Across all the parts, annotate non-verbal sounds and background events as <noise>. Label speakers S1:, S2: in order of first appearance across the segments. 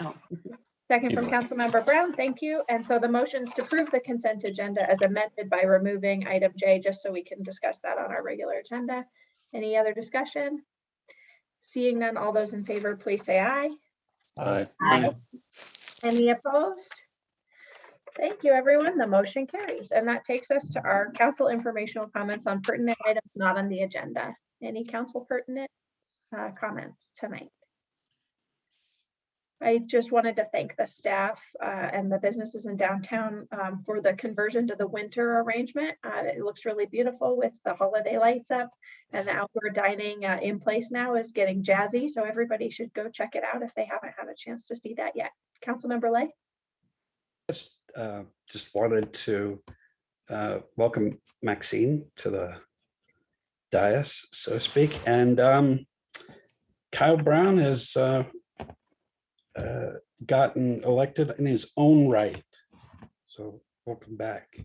S1: Oh.
S2: Second
S3: Keep
S2: from
S3: going.
S2: Councilmember Brown, thank you. And so the motion's to approve the consent agenda as amended by removing item J, just so we can discuss that on our regular agenda. Any other discussion? Seeing none, all those in favor, please say aye.
S3: Aye.
S1: Aye.
S2: Any opposed? Thank you, everyone. The motion carries. And that takes us to our council informational comments on pertinent items not on the agenda. Any council pertinent uh, comments tonight? I just wanted to thank the staff uh, and the businesses in downtown um, for the conversion to the winter arrangement. Uh, It looks really beautiful with the holiday lights up and the outdoor dining uh, in place now is getting jazzy. So everybody should go check it out if they haven't had a chance to see that yet. Councilmember Lay?
S4: Just, uh, just wanted to, uh, welcome Maxine to the dais, so to speak, and, um, Kyle Brown has, uh, uh, gotten elected in his own right. So welcome back.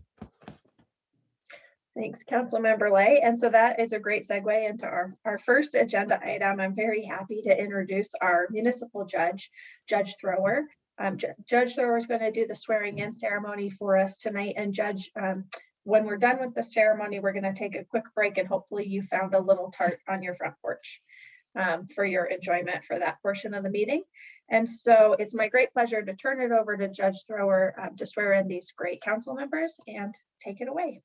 S2: Thanks, Councilmember Lay. And so that is a great segue into our, our first agenda item. I'm very happy to introduce our municipal judge, Judge Thrower. Um, Ju- Judge Thrower is going to do the swearing in ceremony for us tonight and Judge, um, when we're done with the ceremony, we're going to take a quick break and hopefully you found a little tart on your front porch um, for your enjoyment for that portion of the meeting. And so it's my great pleasure to turn it over to Judge Thrower um, to swear in these great council members and take it away.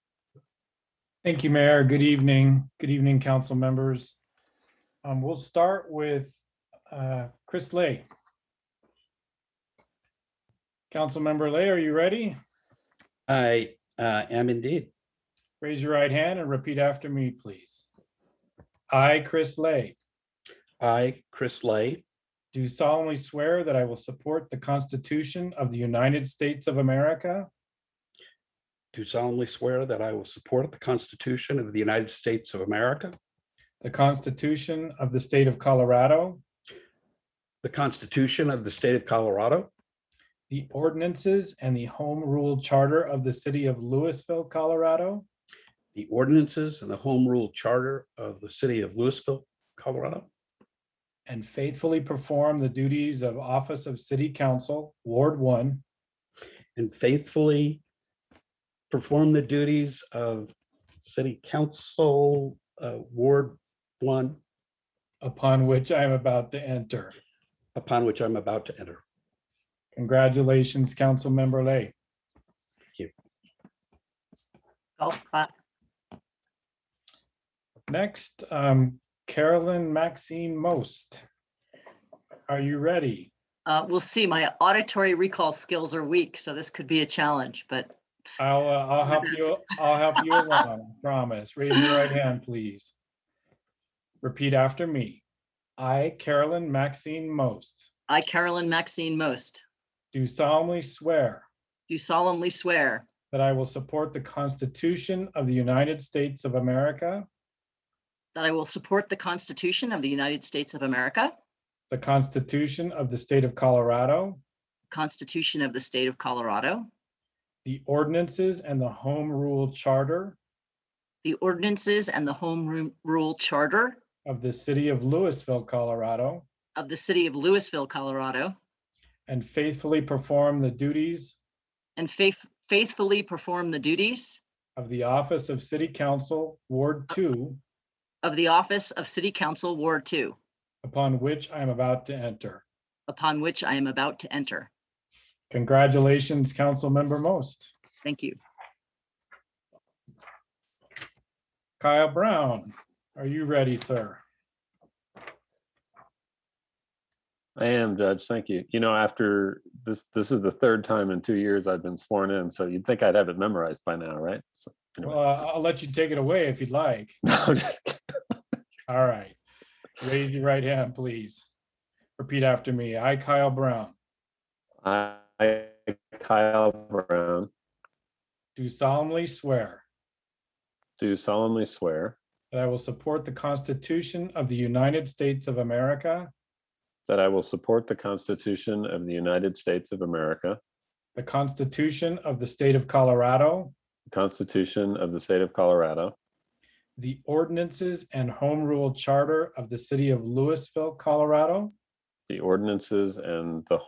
S5: Thank you, Mayor. Good evening. Good evening, council members. Um, We'll start with uh, Chris Lay. Councilmember Lay, are you ready?
S4: I, uh, am indeed.
S5: Raise your right hand and repeat after me, please. I, Chris Lay,
S4: I, Chris Lay,
S5: do solemnly swear that I will support the Constitution of the United States of America
S4: do solemnly swear that I will support the Constitution of the United States of America,
S5: the Constitution of the State of Colorado,
S4: the Constitution of the State of Colorado,
S5: the ordinances and the Home Rule Charter of the City of Louisville, Colorado,
S4: the ordinances and the home rule charter of the city of Louisville, Colorado,
S5: and faithfully perform the duties of Office of City Council, Ward One,
S4: and faithfully perform the duties of city council, uh, Ward One,
S5: upon which I am about to enter.
S4: upon which I'm about to enter.
S5: Congratulations, Councilmember Lay.
S1: golf clap.
S5: Next, um, Carolyn Maxine Most. Are you ready?
S1: Uh, we'll see. My auditory recall skills are weak, so this could be a challenge, but
S5: I'll, uh, I'll help you, I'll help you along, I promise. Raise your right hand, please. Repeat after me. I, Carolyn Maxine Most,
S1: I, Carolyn Maxine Most,
S5: do solemnly swear
S1: do solemnly swear
S5: That I will support the Constitution of the United States of America,
S1: that I will support the Constitution of the United States of America,
S5: the Constitution of the State of Colorado,
S1: Constitution of the State of Colorado,
S5: the ordinances and the Home Rule Charter
S1: the ordinances and the Home Ru- Rule Charter
S5: of the City of Louisville, Colorado,
S1: of the City of Louisville, Colorado,
S5: and faithfully perform the duties
S1: and faith- faithfully perform the duties
S5: of the Office of City Council, Ward Two,
S1: of the office of City Council Ward Two,
S5: upon which I am about to enter.
S1: upon which I am about to enter.
S5: Congratulations, Councilmember Most.
S1: Thank you.
S5: Kyle Brown, are you ready, sir?
S3: I am, Judge. Thank you. You know, after this, this is the third time in two years I've been sworn in, so you'd think I'd have it memorized by now, right? So, <laughs>
S5: Well, I- I'll let you take it away if you'd like.
S3: no, I'm just kidding.
S5: All right. Raise your right hand, please. Repeat after me. I, Kyle Brown,
S3: I, Kyle Brown,
S5: do solemnly swear
S3: do solemnly swear
S5: that I will support the Constitution of the United States of America,
S3: that I will support the Constitution of the United States of America,
S5: the Constitution of the State of Colorado,
S3: the Constitution of the State of Colorado,
S5: the ordinances and home rule charter of the City of Louisville, Colorado,
S3: the ordinances and the